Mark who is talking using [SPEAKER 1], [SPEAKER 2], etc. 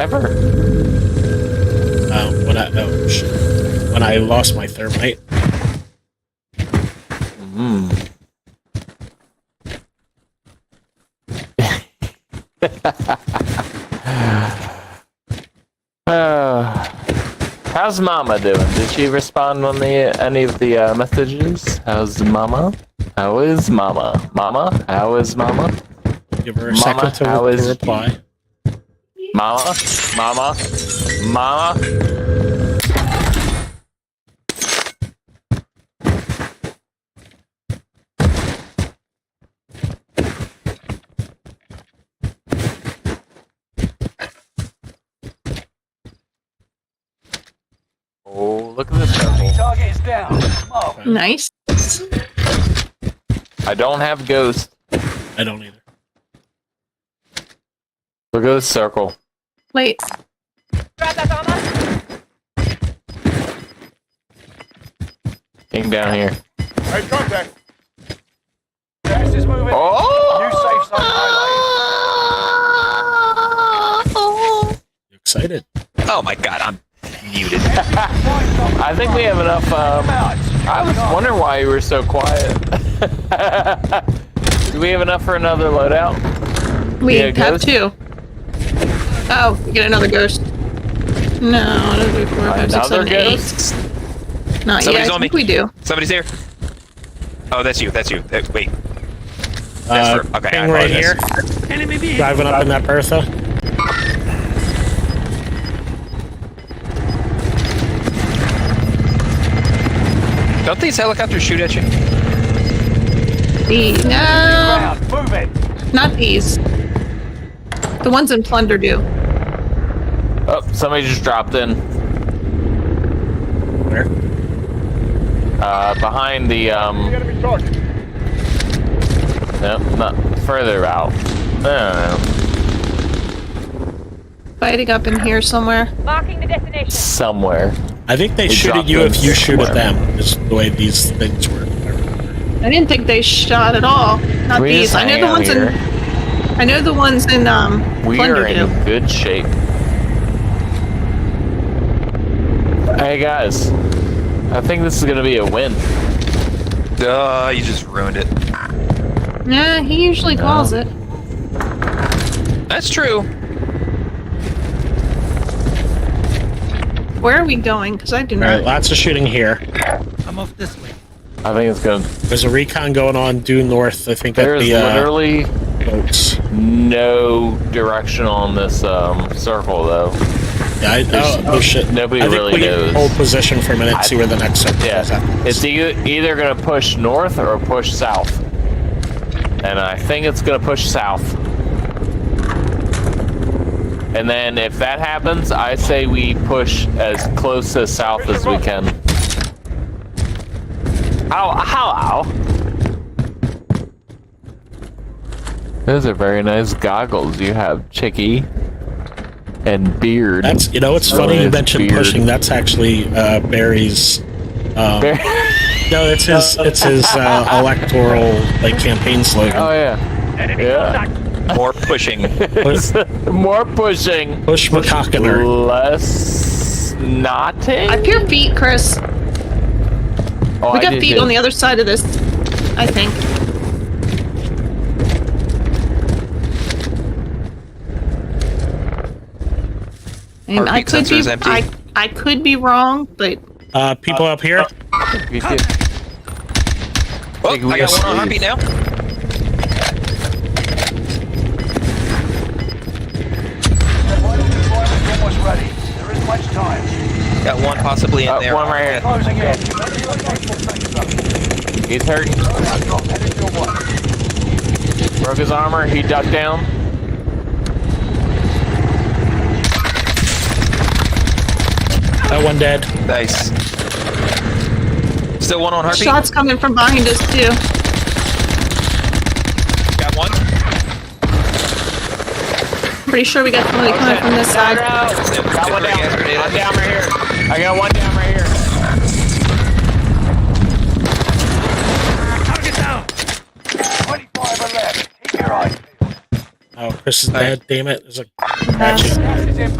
[SPEAKER 1] Ever?
[SPEAKER 2] Um, when I oh, shit. when I lost my thermite,
[SPEAKER 1] Mm. Uh, how's Mama doing? Did she respond on the any of the uh, messages? How's Mama? How is Mama? Mama? How is Mama?
[SPEAKER 2] give her a
[SPEAKER 1] Mama,
[SPEAKER 2] second to,
[SPEAKER 1] how
[SPEAKER 2] to
[SPEAKER 1] is-
[SPEAKER 2] reply.
[SPEAKER 1] Mama? Mama? Mama? Oh, look at this purple.
[SPEAKER 3] Target is down. Oh,
[SPEAKER 4] Nice.
[SPEAKER 1] I don't have ghost.
[SPEAKER 2] I don't either.
[SPEAKER 1] Look at this circle.
[SPEAKER 4] Wait.
[SPEAKER 1] Came down here.
[SPEAKER 3] hey, contact. Gas is moving. New
[SPEAKER 1] Oh!
[SPEAKER 3] safe zone highlighted.
[SPEAKER 2] You excited?
[SPEAKER 5] Oh my god, I'm muted.
[SPEAKER 1] I think we have enough. Um,
[SPEAKER 3] Out.
[SPEAKER 1] I was wondering why you were so quiet. Do we have enough for another loadout?
[SPEAKER 4] We
[SPEAKER 1] Yeah,
[SPEAKER 4] have
[SPEAKER 1] ghost?
[SPEAKER 4] two. Oh, we get another ghost. No, that'll be four, five, six,
[SPEAKER 1] Another
[SPEAKER 4] seven, eight.
[SPEAKER 1] ghost?
[SPEAKER 4] Not yet.
[SPEAKER 5] Somebody's
[SPEAKER 4] I
[SPEAKER 5] on
[SPEAKER 4] think
[SPEAKER 5] me.
[SPEAKER 4] we do.
[SPEAKER 5] Somebody's here. Oh, that's you. That's you. Uh, wait.
[SPEAKER 2] Uh,
[SPEAKER 5] for- okay,
[SPEAKER 2] ping
[SPEAKER 5] I
[SPEAKER 2] right here.
[SPEAKER 5] apologize.
[SPEAKER 2] Driving up in that Bertha.
[SPEAKER 5] Don't these helicopters shoot at you?
[SPEAKER 4] The, E. no,
[SPEAKER 3] Out. Move it.
[SPEAKER 4] not these. The ones in plunder do.
[SPEAKER 1] Oh, somebody just dropped in
[SPEAKER 2] Where?
[SPEAKER 1] uh, behind the. Um,
[SPEAKER 3] Enemy target.
[SPEAKER 1] no, not further out. Um, I don't know.
[SPEAKER 4] Fighting up in here somewhere.
[SPEAKER 6] Marking the destination.
[SPEAKER 1] Somewhere.
[SPEAKER 2] I think they,
[SPEAKER 1] They
[SPEAKER 2] shoot at
[SPEAKER 1] dropped
[SPEAKER 2] you
[SPEAKER 1] them
[SPEAKER 2] if you shoot at
[SPEAKER 1] somewhere.
[SPEAKER 2] them. Is the way these things work.
[SPEAKER 4] I didn't think they shot at all. Not
[SPEAKER 1] we
[SPEAKER 4] these.
[SPEAKER 1] just
[SPEAKER 4] I
[SPEAKER 1] hang
[SPEAKER 4] know
[SPEAKER 1] out
[SPEAKER 4] the ones
[SPEAKER 1] here.
[SPEAKER 4] in. I know the ones in um
[SPEAKER 1] We
[SPEAKER 4] plunder
[SPEAKER 1] are in
[SPEAKER 4] do.
[SPEAKER 1] good shape. Hey guys, I think this is gonna be a win.
[SPEAKER 5] Duh, Uh, you just ruined it.
[SPEAKER 4] Nah, he usually calls
[SPEAKER 1] Oh.
[SPEAKER 4] it.
[SPEAKER 5] That's true.
[SPEAKER 4] Where are we going? Because I do
[SPEAKER 2] All right,
[SPEAKER 4] not.
[SPEAKER 2] lots of shooting here.
[SPEAKER 1] I think it's gonna.
[SPEAKER 2] There's a recon going on due north. I think
[SPEAKER 1] There
[SPEAKER 2] at
[SPEAKER 1] is
[SPEAKER 2] the uh,
[SPEAKER 1] literally
[SPEAKER 2] boats.
[SPEAKER 1] no direction on this um, circle though.
[SPEAKER 2] Yeah, I, oh, oh shit!
[SPEAKER 1] nobody
[SPEAKER 2] I think
[SPEAKER 1] really
[SPEAKER 2] we
[SPEAKER 1] knows.
[SPEAKER 2] hold position for a minute, see where the next circle
[SPEAKER 1] Yeah,
[SPEAKER 2] is. at.
[SPEAKER 1] it's e- either gonna push north or push south, and I think it's gonna push south. And then if that happens, I say we push as close to south as we can. Ow! Ow! Ow! Those are very nice goggles you have, Chicky, and beard.
[SPEAKER 2] That's you know, it's funny you
[SPEAKER 1] it's
[SPEAKER 2] mentioned
[SPEAKER 1] Oh, weird.
[SPEAKER 2] pushing. That's actually uh, Barry's. Um,
[SPEAKER 1] Very-
[SPEAKER 2] No, it's his. It's his uh, electoral like campaign slogan.
[SPEAKER 1] oh yeah. Yeah.
[SPEAKER 5] More pushing.
[SPEAKER 1] More pushing.
[SPEAKER 2] Push McCockiner.
[SPEAKER 1] Less knotting?
[SPEAKER 4] I peer feet, Chris.
[SPEAKER 1] Oh,
[SPEAKER 4] We
[SPEAKER 1] I
[SPEAKER 4] got
[SPEAKER 1] did
[SPEAKER 4] feet
[SPEAKER 1] too.
[SPEAKER 4] on the other side of this. I think. And
[SPEAKER 5] Heartbeat
[SPEAKER 4] I could
[SPEAKER 5] sensor
[SPEAKER 4] be
[SPEAKER 5] is empty.
[SPEAKER 4] I, I could be wrong, but
[SPEAKER 2] Uh, people up here.
[SPEAKER 1] We did.
[SPEAKER 5] Oh, I
[SPEAKER 1] Big
[SPEAKER 5] got one on heartbeat
[SPEAKER 1] wheels.
[SPEAKER 5] now.
[SPEAKER 3] The vital deployment is almost ready. There isn't much time.
[SPEAKER 5] Got one possibly in
[SPEAKER 1] Uh,
[SPEAKER 5] there.
[SPEAKER 1] one right here.
[SPEAKER 3] Closing in. Contact
[SPEAKER 1] He's hurt.
[SPEAKER 3] drop headed your way.
[SPEAKER 1] Broke his armor. He ducked down.
[SPEAKER 2] That one dead.
[SPEAKER 5] Nice. Still one on heartbeat.
[SPEAKER 4] shots coming from behind us too.
[SPEAKER 5] Got one.
[SPEAKER 4] Pretty sure we got somebody coming from this side.
[SPEAKER 1] Got one down.
[SPEAKER 5] Gas grenade.
[SPEAKER 1] I'm down right here. I got one down right here.
[SPEAKER 3] Twenty-five are left. Keep your eyes. peeled.
[SPEAKER 2] Oh, Chris is
[SPEAKER 5] Alright.
[SPEAKER 2] dead. Damn it! There's a
[SPEAKER 4] Uh,
[SPEAKER 3] Gas is inbound.